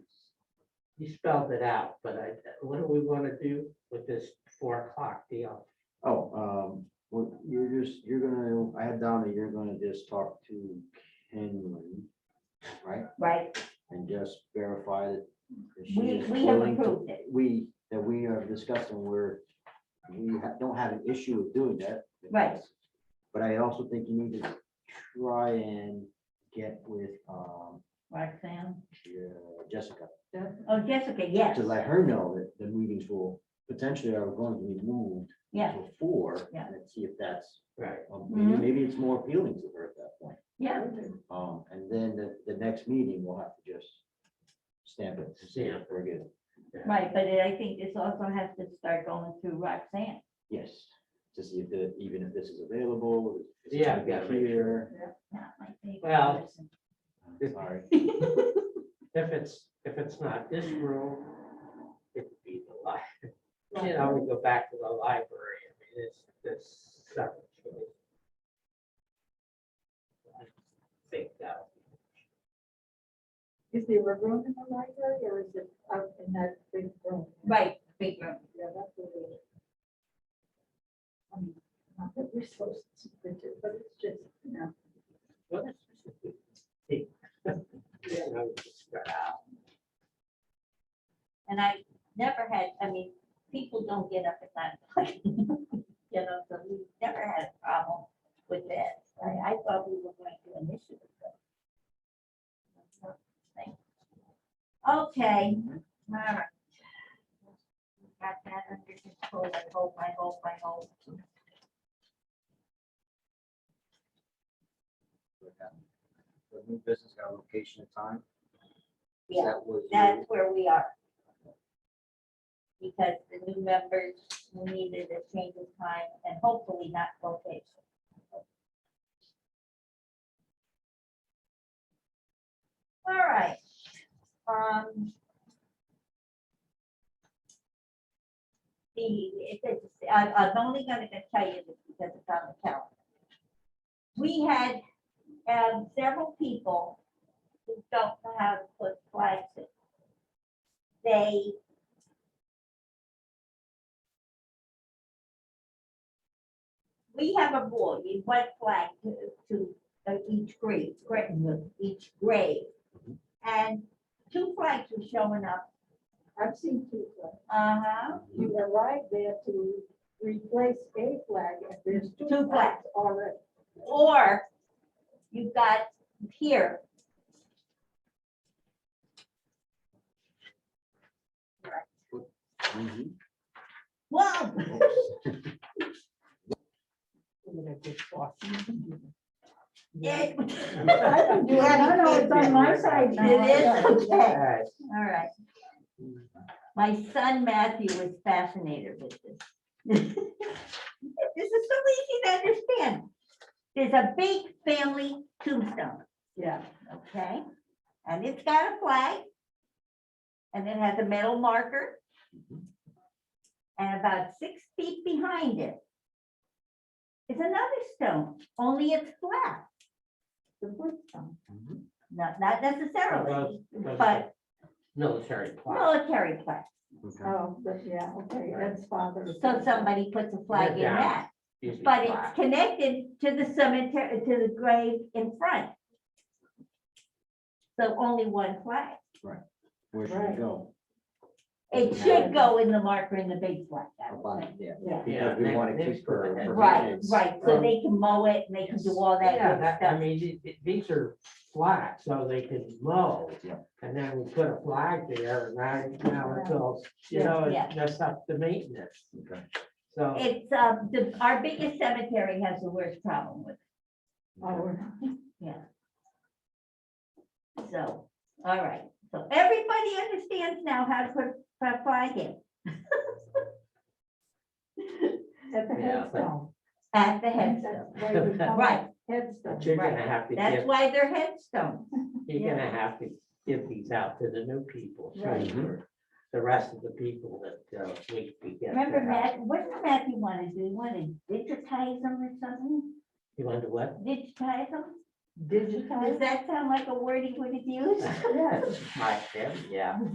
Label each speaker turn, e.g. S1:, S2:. S1: you spelled it out, but I, what do we want to do with this four o'clock deal?
S2: Oh, um, well, you're just, you're gonna, I had down that you're gonna just talk to Kenyon, right?
S3: right?
S2: And just verify that. that she
S3: We,
S2: is
S3: we have
S2: willing to-
S3: approved it.
S2: We, that we are discussing where we ha- don't have an issue with doing that.
S3: Right.
S2: But I also think you need to try and get with, um,
S3: Roxanne,
S2: uh, Jessica
S3: oh, Jessica, yes,
S2: to let her know that the meetings will potentially are going to be moved
S3: yeah,
S2: to four.
S3: Yeah.
S2: And see if that's
S1: Right,
S2: Well, Um, Maybe,
S3: Mhm.
S2: maybe it's more appealing to her at that point.
S3: yeah,
S2: Um, and then the, the next meeting, we'll have to just stamp it, to see if we're good.
S3: right, but I think this also has to start going through Roxanne.
S2: Yes, to see if the, even if this is available. if it's
S1: Yeah,
S2: gonna be
S1: gotta make
S2: here.
S3: Not my favorite
S1: Well,
S3: person.
S1: If-
S2: Sorry,
S1: if it's, if it's not this room, it'd be the li, you know, we go back to the library, I mean, it's, this separate. choice. I Think that,
S4: Is there a room in the library or is it out in that big room?
S3: Right, big room.
S4: Yeah, that's a little. I mean, Not that we're supposed to, but it- but it's just, you know.
S1: what is this? Hey. You know, just start out.
S3: And I never had, I mean, people don't get up at nine o'clock. You know, so we never had a problem with that. I, I thought we were going to initially. but- Okay, all right. Got that under control, I hope, I hope, I hope.
S2: but, um, The new business got a location and time.
S3: Yeah,
S2: That was
S3: That's
S2: you.
S3: where we are. Because the new members needed a change of time and hopefully not location. All right, um. The, it, it's- I, I'm only gonna tell you this because it's on the calendar. We had, um, several people who don't know how to put flags in. They. We have a board, you went flag to, to uh, each grade, gra- each grade. And two flags were showing up,
S4: I've seen two flags.
S3: uh-huh,
S4: You arrive there to replace a flag and there's two
S3: Two
S4: flags already.
S3: or you got here.
S2: Mhm.
S3: Whoa,
S4: Mm-hmm.
S3: it,
S4: I can do it. No, no, it's on my side now.
S3: It is, okay.
S1: All right,
S3: All right. My son Matthew was fascinated with this. This is so easy to understand. There's a big family tombstone,
S4: Yeah.
S3: okay? And it's got a flag. And it has a metal marker. And about six feet behind it is another stone, only it's flat. The wood stone,
S2: Mhm.
S3: not, not necessarily,
S1: those-
S3: but
S1: military plot.
S3: military flag.
S2: Okay.
S4: Oh, but yeah, okay, that's father.
S3: So somebody puts a flag in
S1: Yeah.
S3: that,
S1: usually
S3: but
S1: plaque.
S3: it's connected to the cemetery, to the grave in front. So only one flag.
S2: Where should we
S4: Right.
S2: go?
S3: It should go in the marker in the big flag. I
S2: Up
S3: would
S2: on
S3: think.
S2: it, Yeah,
S4: Yeah.
S1: Yeah,
S2: because we
S1: next-
S2: want to
S1: next
S2: keep her.
S1: to the
S2: her
S1: head.
S3: Right,
S2: kids.
S3: right, so
S1: Um,
S3: they can mow it, and they can do
S2: yes.
S3: all
S1: Yeah,
S3: that good
S1: that, I
S3: stuff.
S1: mean, it- it- these are flat, so they can mow.
S2: Yeah.
S1: And then we put a flag there, and now, now it's all, you
S4: Yeah.
S1: know,
S3: Yeah.
S1: it- that's up to maintenance,
S2: Okay.
S1: so.
S3: It's, um, the, our biggest cemetery has the worst problem with,
S4: Oh,
S3: it. so, all right. So everybody understands now how to put a flag in
S4: at the
S1: Yeah.
S4: headstone.
S3: at the headstone,
S4: That's why we call it
S3: right?
S1: But
S4: Headstone.
S1: you're gonna have to
S3: That's
S1: give,
S3: why they're headstones.
S1: you're gonna have to give these out to the new people, so
S4: Right.
S1: for the rest of the people that uh, we we get. to
S3: Remember,
S1: have.
S3: Matt, what did Matthew want to do? He wanted to digitize them or something?
S1: You wonder what?
S3: Digitize them?
S4: Digital.
S3: Does that sound like a word he would have used?
S1: Yes, my, yeah.